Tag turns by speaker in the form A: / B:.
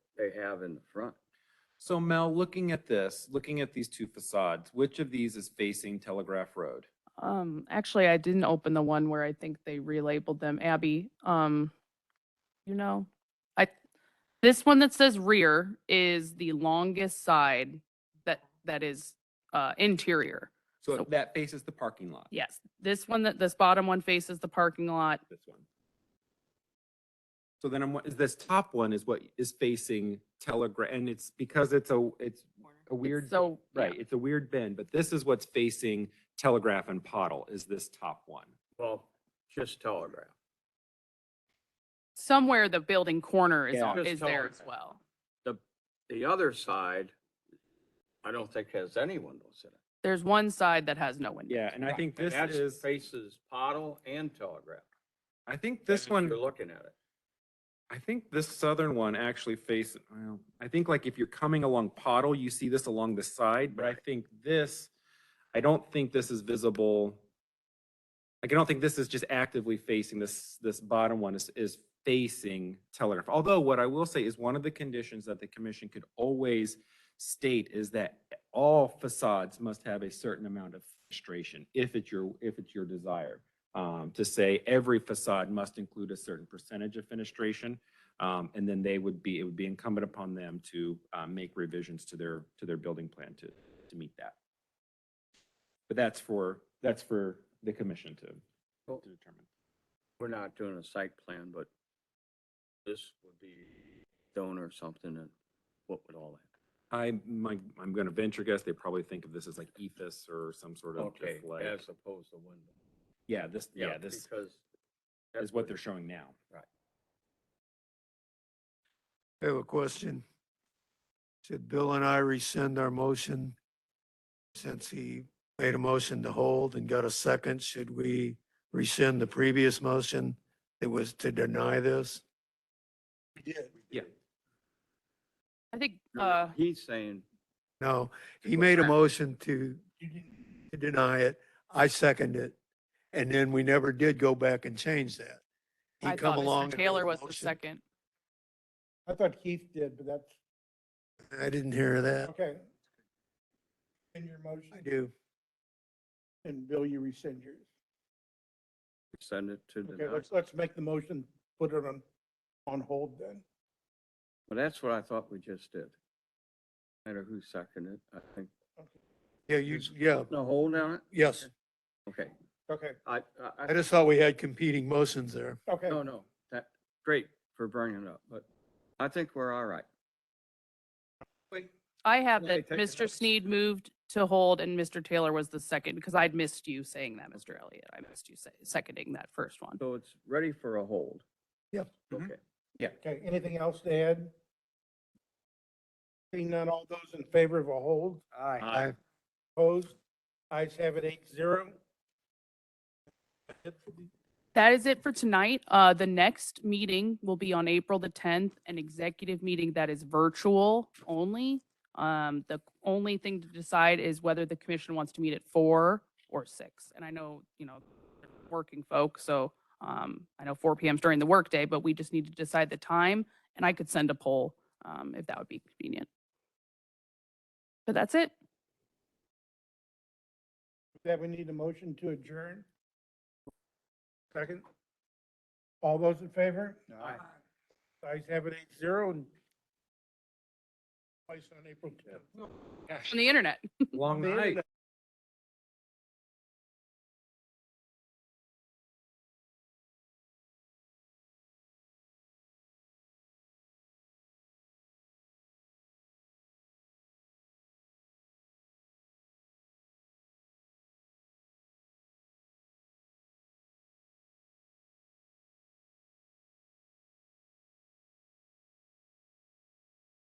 A: they have in the front.
B: So Mel, looking at this, looking at these two facades, which of these is facing Telegraph Road?
C: Um, actually, I didn't open the one where I think they relabeled them. Abby, um, you know, I, this one that says rear is the longest side that, that is, uh, interior.
B: So
C: So-
B: that faces the parking lot.
C: Yes, this one that, this bottom one faces the parking lot.
B: This one. So then I'm, wa- is this top one is what is facing Telegraph, and it's because it's a, it's a
C: It's
B: weird.
C: So, yeah.
B: Right, it's a weird bend, but this is what's facing Telegraph and Pottle is this top one.
A: Well, just telegraph.
C: somewhere the building corner is,
B: Yeah.
C: on-
A: Just
C: is there
A: tolerate
C: as
A: that.
C: well.
A: The, the other side, I don't think has any windows in it.
C: There's one side that has no window.
B: Yeah, and I think
A: And
B: this
A: that's
B: is,
A: Faces Pottle and Telegraph.
B: I think this one.
A: You're looking at it.
B: I think this southern one actually faces, well, I think like if you're coming along Pottle, you see this along the side, but I
A: Right.
B: think this, I don't think this is visible. Like, I don't think this is just actively facing this, this bottom one is, is facing Telegraph. Although what I will say is one of the conditions that the commission could always state is that all facades must have a certain amount of fenestration if it's your, if it's your desire. Um, to say every facade must include a certain percentage of fenestration. Um, and then they would be, it would be incumbent upon them to, uh, make revisions to their, to their building plan to, to meet that. But that's for, that's for the commission to,
A: Well-
B: to determine.
A: We're not doing a site plan, but this would be stone or something and what would all that?
B: I, my, I'm gonna venture guess, they probably think of this as like E ethos or some sort of
A: Okay,
B: just like,
A: as opposed to window.
B: yeah, this, yeah, this
A: Because. that's
B: is what they're showing now.
D: I have a question. Should Bill and I rescind our motion? Since he made a motion to hold and got a second, should we rescind the previous motion that was to deny this? We did.
B: Yeah.
C: I think,
A: No,
C: uh,
A: He's saying,
D: No, he made a motion to to deny it. I second it. And then we never did go back and change that. He
C: I
D: come
C: thought
D: along
C: Mr.
D: and made
C: Taylor
D: a
C: was the
D: motion.
C: second.
E: I thought Keith did, but that's,
D: I didn't hear that.
E: okay. In your motion,
D: I do.
E: and Bill, you rescind yours.
A: send it to the,
E: Okay,
A: doc-
E: let's, let's make the motion, put it on, on hold then.
A: well, that's what I thought we just did. No Matter who seconded it, I think.
D: Yeah, you, yeah,
A: No hold on it?
D: yes.
A: Okay,
E: Okay,
A: I, I-
D: I
A: I,
D: just thought we had competing motions there.
E: okay.
A: no, no, that, great for bringing it up, but I think we're all right.
C: I have
A: Yeah,
C: that
A: take
C: Mr.
A: notes.
C: Sneed moved to hold and Mr. Taylor was the second because I'd missed you saying that, Mr. Elliott. I missed you say- seconding that first one.
A: So it's ready for a hold.
D: Yep.
B: Mhm.
A: Okay,
E: Okay, anything else to add? Seeing none, all those in favor of a hold,
A: Aye.
E: opposed, ayes have it eight zero.
C: That is it for tonight. Uh, the next meeting will be on April the tenth, an executive meeting that is virtual only. Um, the only thing to decide is whether the commission wants to meet at four or six. And I know, you know, working folks, so, um, I know four PM's during the workday, but we just need to decide the time. And I could send a poll, um, if that would be convenient. But that's it.
E: That we need a motion to adjourn. Second. All those in favor?
A: Aye.
E: Ayes have it eight zero and placed on April tenth.
C: On the internet.
B: Long
E: The
B: night.
E: internet.